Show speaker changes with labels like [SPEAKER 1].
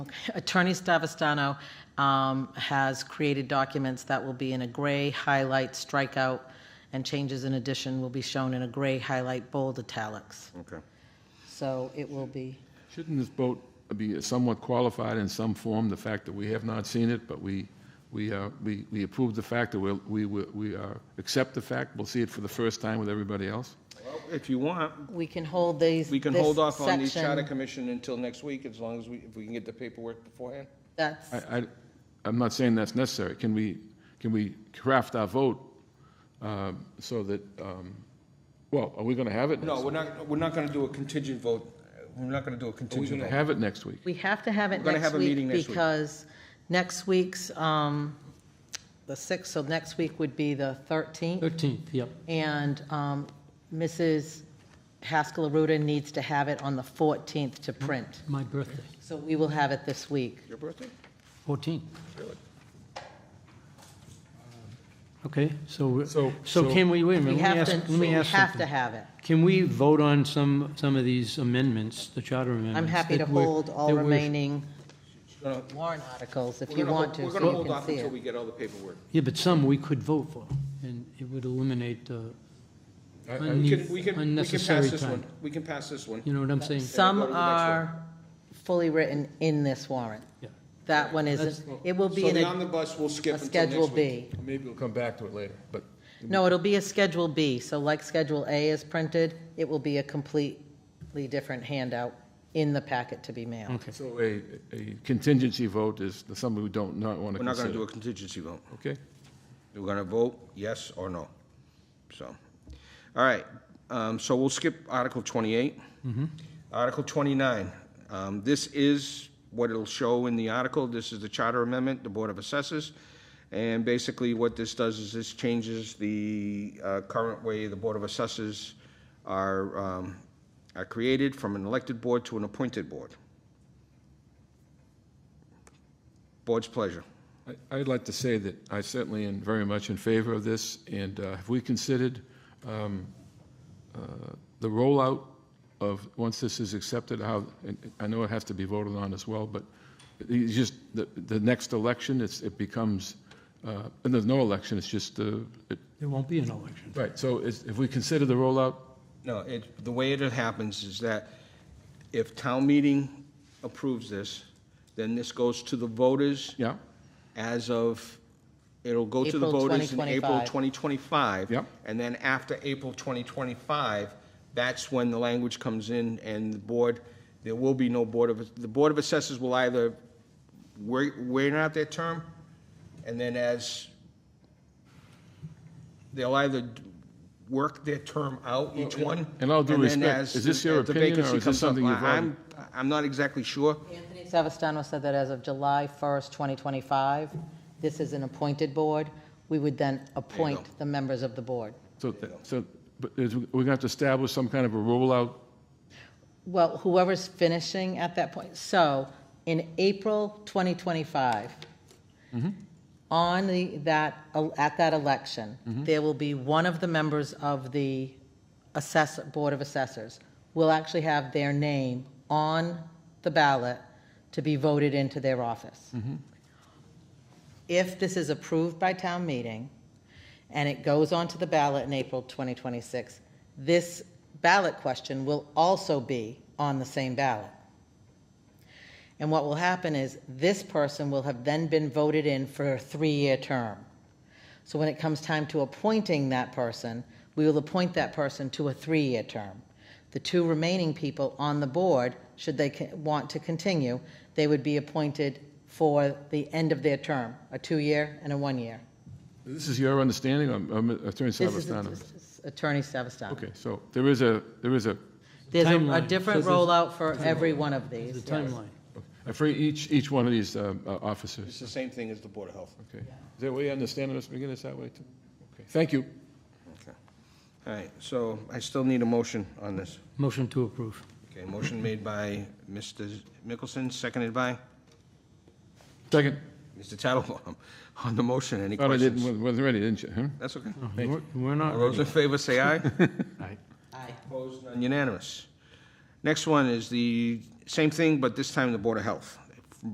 [SPEAKER 1] Attorney Stavastano um, has created documents that will be in a gray highlight strikeout, and changes in addition will be shown in a gray highlight bold italics.
[SPEAKER 2] Okay.
[SPEAKER 1] So it will be,
[SPEAKER 3] Shouldn't this vote be somewhat qualified in some form, the fact that we have not seen it, but we, we, uh, we we approve the fact that we'll- we, we, we uh, accept the fact, we'll see it for the first time with everybody else?
[SPEAKER 2] Well, If you want,
[SPEAKER 1] we can hold these,
[SPEAKER 2] we can
[SPEAKER 1] this
[SPEAKER 2] hold off on the
[SPEAKER 1] section.
[SPEAKER 2] charter commission until next week, as long as we, if we can get the paperwork beforehand.
[SPEAKER 1] That's,
[SPEAKER 3] I, I, I'm not saying that's necessary. Can we, can we craft our vote um, so that, um, well, are we going to have it?
[SPEAKER 2] No,
[SPEAKER 3] next-
[SPEAKER 2] we're not, we're not gonna do a contingent vote. We're not gonna do a
[SPEAKER 3] Are we going
[SPEAKER 2] contingent
[SPEAKER 3] to
[SPEAKER 2] vote.
[SPEAKER 3] have it next week?
[SPEAKER 1] we have to have it
[SPEAKER 2] We're gonna
[SPEAKER 1] next
[SPEAKER 2] have a meeting
[SPEAKER 1] week
[SPEAKER 2] next week.
[SPEAKER 1] because next week's, um, the 6th, so next week would be the 13th.
[SPEAKER 4] 13th, yep.
[SPEAKER 1] And um, Mrs. Haskell Aruda needs to have it on the 14th to print.
[SPEAKER 4] My birthday,
[SPEAKER 1] So we will have it this week.
[SPEAKER 2] Your birthday?
[SPEAKER 4] 14th. Okay, so, we're-
[SPEAKER 3] So-
[SPEAKER 4] so
[SPEAKER 3] so-
[SPEAKER 4] can we, wait a
[SPEAKER 1] We
[SPEAKER 4] minute, let me
[SPEAKER 1] have
[SPEAKER 4] ask,
[SPEAKER 1] to,
[SPEAKER 4] let
[SPEAKER 1] we
[SPEAKER 4] me ask
[SPEAKER 1] have to
[SPEAKER 4] something.
[SPEAKER 1] have it.
[SPEAKER 4] Can we vote on some, some of these amendments, the charter amendments?
[SPEAKER 1] I'm happy to
[SPEAKER 4] that Mm. we're-
[SPEAKER 1] hold all
[SPEAKER 4] that we're-
[SPEAKER 1] remaining
[SPEAKER 2] We're gonna-
[SPEAKER 1] warrant articles if
[SPEAKER 2] we're
[SPEAKER 1] you
[SPEAKER 2] gonna
[SPEAKER 1] want
[SPEAKER 2] hold-
[SPEAKER 1] to,
[SPEAKER 2] We're gonna
[SPEAKER 1] so you
[SPEAKER 2] hold
[SPEAKER 1] can
[SPEAKER 2] off
[SPEAKER 1] see
[SPEAKER 2] until
[SPEAKER 1] it.
[SPEAKER 2] we get all the paperwork.
[SPEAKER 4] Yeah, but some we could vote for, and it would eliminate uh,
[SPEAKER 3] I- I-
[SPEAKER 2] We
[SPEAKER 4] unne-
[SPEAKER 2] can, we can, we can
[SPEAKER 4] unnecessary
[SPEAKER 2] pass this one.
[SPEAKER 4] time.
[SPEAKER 2] We can pass this one.
[SPEAKER 4] You know what I'm saying?
[SPEAKER 1] Some
[SPEAKER 2] go to the next one.
[SPEAKER 1] are fully written in this warrant.
[SPEAKER 4] Yeah.
[SPEAKER 1] That one
[SPEAKER 4] That's-
[SPEAKER 1] isn't. It will be
[SPEAKER 2] So
[SPEAKER 1] in
[SPEAKER 2] the
[SPEAKER 1] a
[SPEAKER 2] omnibus, we'll skip
[SPEAKER 1] a
[SPEAKER 2] until next
[SPEAKER 1] Schedule
[SPEAKER 2] week.
[SPEAKER 1] B.
[SPEAKER 3] Maybe we'll come back to it later, but
[SPEAKER 1] No, it'll be a Schedule B, so like Schedule A is printed, it will be a completely different handout in the packet to be mailed.
[SPEAKER 4] Okay,
[SPEAKER 3] so a, a contingency vote is something we don't not want to
[SPEAKER 2] We're not gonna
[SPEAKER 3] consider.
[SPEAKER 2] do a contingency vote.
[SPEAKER 3] Okay?
[SPEAKER 2] We're gonna vote yes or no. So, all right, um, so we'll skip Article twenty-eight. Article twenty-nine, um, this is what it'll show in the article, this is the charter amendment, the Board of Assessors. And basically what this does is this changes the, uh, current way the Board of Assessors are, um, are created from an elected board to an appointed board. Board's pleasure.
[SPEAKER 3] I- I'd like to say that I certainly am very much in favor of this, and uh, have we considered um, uh, the rollout of, once this is accepted, how, and I know it has to be voted on as well, but it's just, the, the next election, it's, it becomes, uh, and there's no election, it's just, uh, it-
[SPEAKER 4] there won't be an election.
[SPEAKER 3] right, so is- if we consider the rollout,
[SPEAKER 2] No, it, the way it happens is that if town meeting approves this, then this goes to the voters
[SPEAKER 3] yeah,
[SPEAKER 2] as of, it'll go to the
[SPEAKER 1] April
[SPEAKER 2] voters in April
[SPEAKER 1] 2025.
[SPEAKER 2] 2025.
[SPEAKER 3] Yep.
[SPEAKER 2] And then after April 2025, that's when the language comes in and the board, there will be no board of, the Board of Assessors will either wait, wait out their term, and then as, they'll either d- work their term out, each one.
[SPEAKER 3] and all due
[SPEAKER 2] and then
[SPEAKER 3] respect,
[SPEAKER 2] as-
[SPEAKER 3] is this your
[SPEAKER 2] as the
[SPEAKER 3] opinion, or
[SPEAKER 2] vacancy
[SPEAKER 3] is this
[SPEAKER 2] comes up.
[SPEAKER 3] something you've
[SPEAKER 2] I- I'm, I'm not exactly sure.
[SPEAKER 1] Anthony Savastano said that as of July 1st, 2025, this is an appointed board. We would then appoint the members of the board.
[SPEAKER 3] so, th- so, but is- we're going to have to establish some kind of a rollout,
[SPEAKER 1] Well, whoever's finishing at that point. So in April 2025, on the, that, at that election, there will be one of the members of the assess, Board of Assessors will actually have their name on the ballot to be voted into their office. If this is approved by town meeting and it goes onto the ballot in April 2026, this ballot question will also be on the same ballot. And what will happen is this person will have then been voted in for a three-year term. So when it comes time to appointing that person, we will appoint that person to a three-year term. The two remaining people on the board, should they co- want to continue, they would be appointed for the end of their term, a two-year and a one-year.
[SPEAKER 3] this is your understanding, I'm- I'm Attorney
[SPEAKER 1] This is
[SPEAKER 3] Savastano?
[SPEAKER 1] Attorney Savastano.
[SPEAKER 3] Okay, so there is a, there is a,
[SPEAKER 1] There's a- a
[SPEAKER 4] Timeline.
[SPEAKER 1] different
[SPEAKER 4] So there's-
[SPEAKER 1] rollout for every one of these.
[SPEAKER 4] The
[SPEAKER 1] yes.
[SPEAKER 4] timeline.
[SPEAKER 3] uh, for each, each one of these um, uh,
[SPEAKER 2] It's
[SPEAKER 3] officers,
[SPEAKER 2] the same thing as the Board of Health.
[SPEAKER 3] okay? Is that way you understand it, Mr. McGinnis, that way too? Okay, thank you.
[SPEAKER 2] Okay. All right, so I still need a motion on this.
[SPEAKER 4] Motion to approve.
[SPEAKER 2] Okay, motion made by Mr. Mickelson, seconded by
[SPEAKER 3] Second,
[SPEAKER 2] Mr. Tattelbaum. On the motion, any
[SPEAKER 3] thought I didn't, Oh,
[SPEAKER 2] questions?
[SPEAKER 3] wasn't- wasn't ready, didn't you, huh?
[SPEAKER 2] That's okay.
[SPEAKER 4] We're we're
[SPEAKER 2] All
[SPEAKER 4] not,
[SPEAKER 2] those in favor say aye.
[SPEAKER 1] Aye.
[SPEAKER 2] Opposed, none, unanimous. Next one is the same thing, but this time the Board of Health.